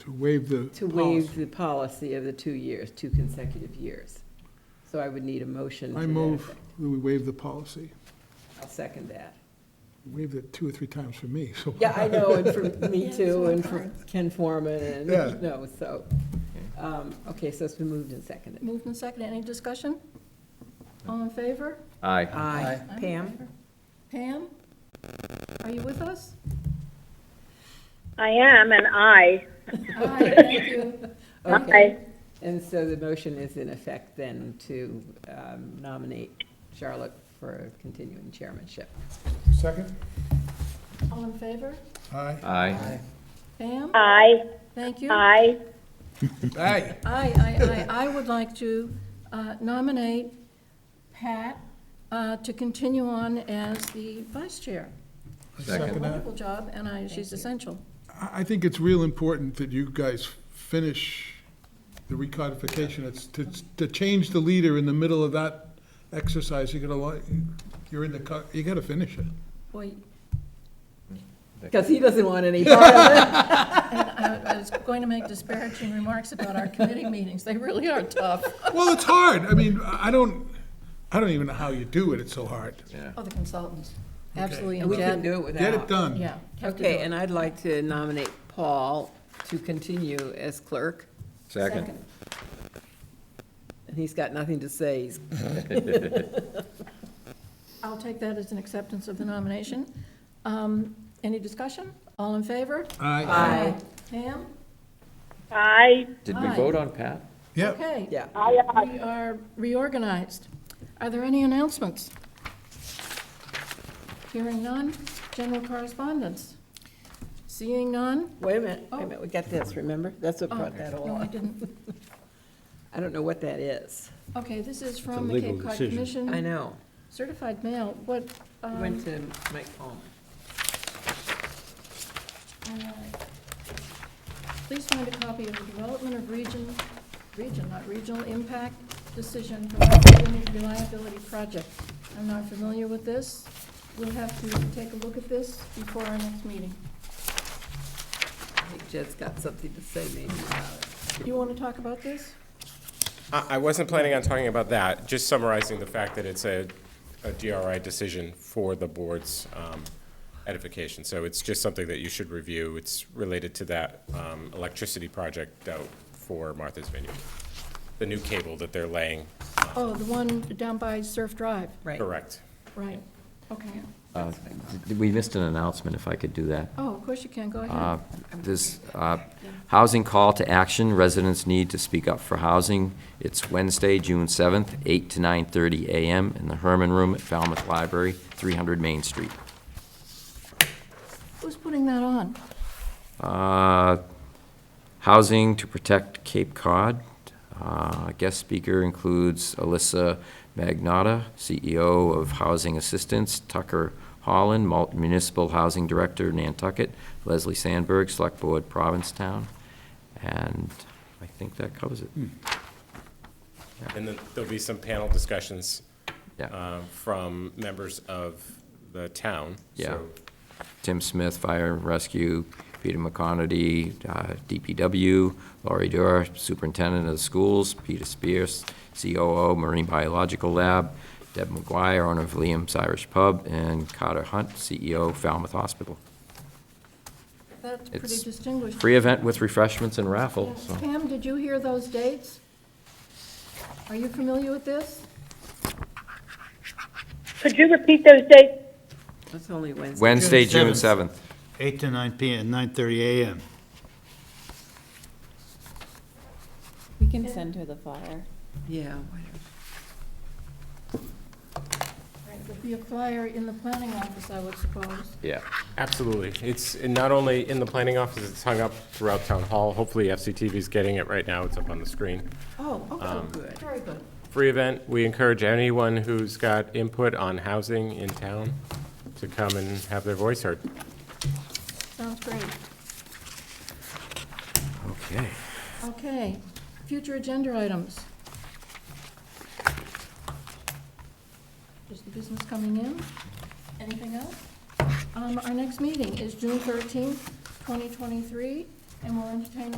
to waive the to policy. waive the policy of the two years, two consecutive years. So I would need a motion to I that move effect. that we waive the policy. I'll second that. Waived it two or three times for me, so. Yeah, I know, and for me Yeah, too, so and for hard. Ken Forman, and, Yeah. you know, so. um, Okay, so it's been moved and seconded. Moved and seconded, any discussion? All in favor? Aye. Aye. I'm in Pam? favor. Pam, are you with us? I am an I. Aye, thank you. Okay. And so the motion is in effect then to um, nominate Charlotte for continuing chairmanship. Second? All in favor? Aye. Aye. Pam, I, thank you. Aye, I, Aye. aye, aye, I would like to uh, nominate Pat uh, to continue on as the vice chair. I Second. Second that. Wonderful job, and I, she's essential. I, I think it's real important that you guys finish the recodification. It's to, to change the leader in the middle of that exercise, you're gonna like, you're in the, co- you gotta finish it. Boy, Because he doesn't want any part of it. and I I was going to make disparaging remarks about our committee meetings, they really are tough. Well, it's hard. I mean, I I don't, I don't even know how you do it. It's so hard. Oh, the consultants, Okay. absolutely, And and we can Dad, do it without. Get it done. yeah. have to do Okay, it. and I'd like to nominate Paul to continue as clerk. Second. And he's got nothing to say. He's- I'll take that as an acceptance of the nomination. Um, Any discussion? All in favor? Aye. Pam? I, Did we Aye. vote on Pat? Yep. Okay. Yeah. I, I. We are reorganized. Are there any announcements? Hearing none. General correspondence? Seeing none? Wait a minute, wait a minute, we got this, remember? That's what Oh, brought that No, I along. didn't. I don't know what that is. Okay, this is from the Cape Cod Commission. I know. Certified mail, what, Mm-hmm. um, Went to Mike Palmer. Please find a copy of the Development of Region, Region, not Regional Impact Decision for the Community Reliability Project. I'm not familiar with this. We'll have to take a look at this before our next meeting. I think Jed's got something to say maybe about it. You want to talk about this? I I wasn't planning on talking about that, just summarizing the fact that it's a, a DRI decision for the board's um, edification. So it's just something that you should review. It's related to that um, electricity project out for Martha's Vineyard, the new cable that they're laying. Oh, the one down by Surf Drive, Right. Correct. right. Okay. Uh, We missed an announcement, if I could do that. Oh, of course you can, go Uh, ahead. This uh, housing call to action, residents need to speak up for housing. It's Wednesday, June 7th, 8 to 9:30 a.m. in the Herman Room at Falmouth Library, 300 Main Street. Who's putting that on? Uh, Housing to Protect Cape Cod. Uh, Guest speaker includes Alyssa Magnotta, CEO of Housing Assistance, Tucker Holland, Mul- Municipal Housing Director, Nantucket, Leslie Sandberg, Select Board, Provincetown. And I think that covers it. And then there'll be some panel discussions Yeah. uh, from members of the town. Yeah. So Tim Smith, Fire and Rescue, Peter McConerty, uh, DPW, Laurie Durr, Superintendent of the Schools, Peter Spears, COO, Marine Biological Lab, Deb McGuire, owner of Liam's Irish Pub, and Carter Hunt, CEO, Falmouth Hospital. That's pretty It's distinguished. Free event with refreshments and raffle, so. Pam, did you hear those dates? Are you familiar with this? Could you repeat those dates? That's only Wednesday. Wednesday, June June 7th. 8 to 9 p.m., 9:30 a.m. We can send her the flyer. Yeah, whatever. There'll be a flyer in the planning office, I would suppose. Yeah. Absolutely. It's not only in the planning office, it's hung up throughout town hall. Hopefully FCTV's getting it right now. It's up on the screen. Oh, okay, good. very good. free event. We encourage anyone who's got input on housing in town to come and have their voice heard. Sounds great. Okay. Okay, future agenda items. Is the business coming in? Anything else? Um, Our next meeting is June 13th, 2023, and we'll entertain